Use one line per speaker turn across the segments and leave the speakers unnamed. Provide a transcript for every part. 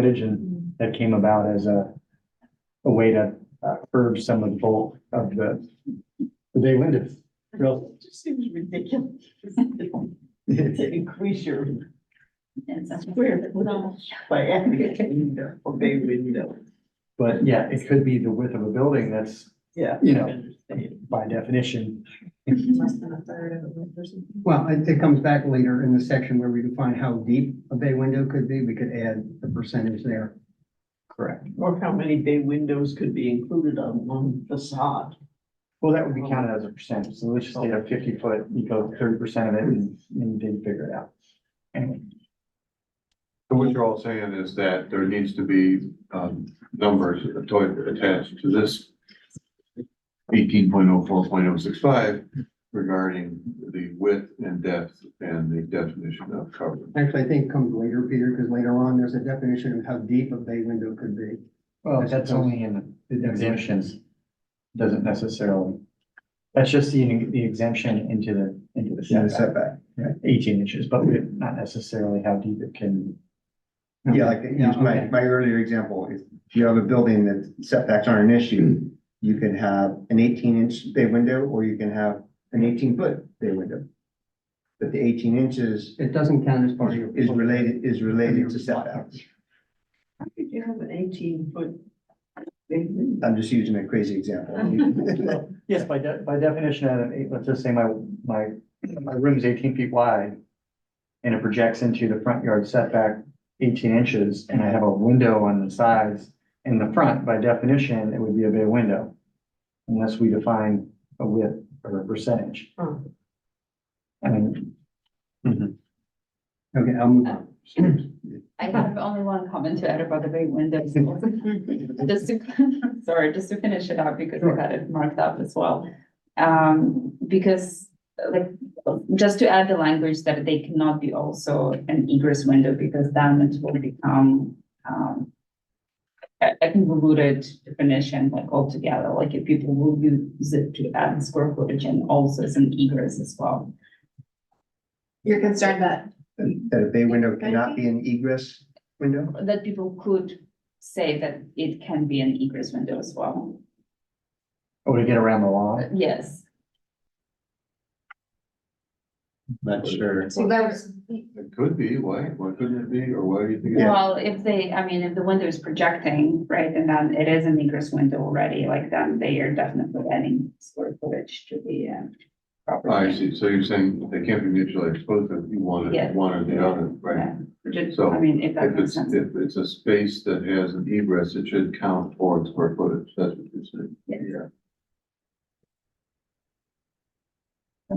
footage and that came about as a, a way to uh, curb some of the bulk of the, the day windows. Real,
It just seems ridiculous to increase your square footage by adding a window, a bay window.
but yeah, it could be the width of a building that's
Yeah.
You
I
know.
understand.
by definition.
Less than a third of a width or something.
Well, it, it comes back later in the section where we define how deep a bay window could be. We could add the percentage there.
Correct.
Or how many bay windows could be included on one facade?
Well, that would be counted as a percentage. So let's just say a fifty foot, you go thirty percent of it and and you didn't figure it out. Anyway,
So what you're all saying is that there needs to be, um, numbers atta- attached to this eighteen point oh four point oh six five regarding the width and depth and the definition of cover.
Actually, I think it comes later, Peter, because later on, there's a definition of how deep a bay window could be.
well, that's only in the exemptions. Doesn't necessarily, that's just the, the exemption into the, into the setback.
setback.
eighteen inches, but we not necessarily how deep it can.
Yeah, like, use my, my earlier example, if you have a building that setbacks aren't an issue, you can have an eighteen inch bay window, or you can have an eighteen foot bay window. But the eighteen inches
It doesn't count as part of your.
is related, is related to setbacks.
How could you have an eighteen foot bay window?
I'm just using a crazy example.
Yes, by de- by definition, at an eight, let's just say my, my, my room's eighteen feet wide. And it projects into the front yard setback eighteen inches, and I have a window on the sides. In the front, by definition, it would be a bay window. Unless we define a width or a percentage.
Huh.
I mean,
Okay, I'll move on.
I have only one comment to add about the bay windows. Just to, sorry, just to finish it up because I got it marked up as well. Um, because like, just to add the language that they cannot be also an egress window because then it will become, um, a a convoluted definition like altogether, like if people will use it to add square footage and also as an egress as well.
You're concerned that,
That a bay window cannot be an egress window?
that people could say that it can be an egress window as well.
or to get around the law.
But Yes,
Not sure.
so that was,
It could be, why, why couldn't it be, or why do you think? it-
well, if they, I mean, if the window is projecting, right, and then it is an egress window already, like then they are definitely adding square footage to the uh.
Oh, I
property.
see, so you're saying they can't be mutually exclusive, you want
Yeah.
it, one or the other, right?
Yeah. Just-
So,
I mean, if that
If
makes
it's,
sense,
if it's a space that has an egress, it should count towards square footage, that's what you're saying.
Yes.
Yeah.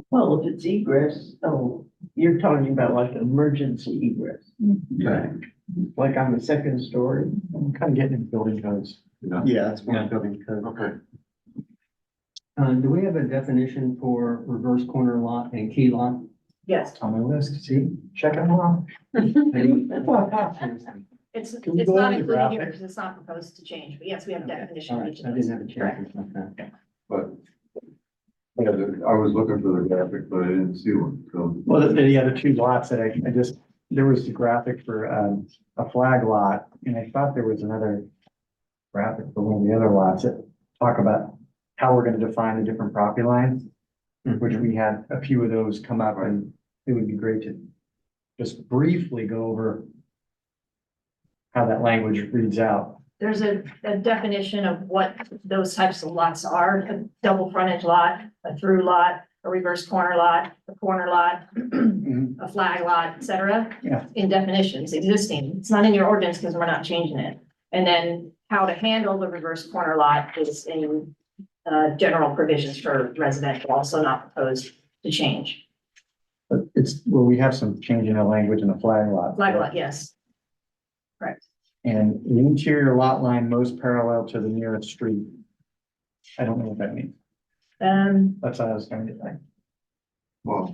Well, if it's egress, oh, you're talking about like an emergency egress,
Yeah.
like on the second story.
I'm kind of getting into building codes.
Yeah.
Yeah, it's one building code.
Okay.
Uh, do we have a definition for reverse corner lot and key lot?
yes,
It's on my list, see, check them out.
Seriously.
it's, it's
Can we go
not
into
included here
graphic?
because it's not proposed to change, but yes, we have a
Okay,
definition.
All
of
right,
each
I
of
didn't
those.
have a check. Okay.
But, yeah, the- I was looking for the graphic, but I didn't see one, so.
Well, the, the other two lots that I, I just, there was the graphic for, um, a flag lot, and I thought there was another graphic for one of the other lots that talk about how we're gonna define the different property lines, which
Mm-hmm.
we had a few of those come up, and it would be great to just briefly go over how that language reads out.
There's a, a definition of what those types of lots are, a double frontage lot, a through lot, a reverse corner lot, a corner lot, a flag lot, et cetera.
Yeah.
In definitions existing, it's not in your ordinance because we're not changing it. And then how to handle the reverse corner lot is in uh, general provisions for residential, also not proposed to change.
But it's, well, we have some change in the language in the flag lot.
Flag lot, yes.
And the interior lot line most parallel to the nearest street. I don't know what that means.
Um,
That's what I was trying to think.
Well.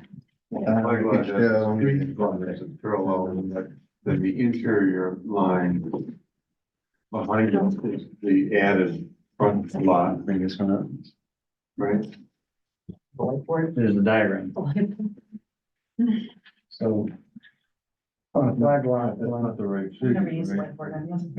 Yeah.
I'm glad that's
Yeah.
street frontage is Parallel, and that, then the interior line behind it is the added front lot,
Bring this one up.
right?
There's the diagram. So
On a flag lot,
That's
one-
not the right.
Never used whiteboard, have you?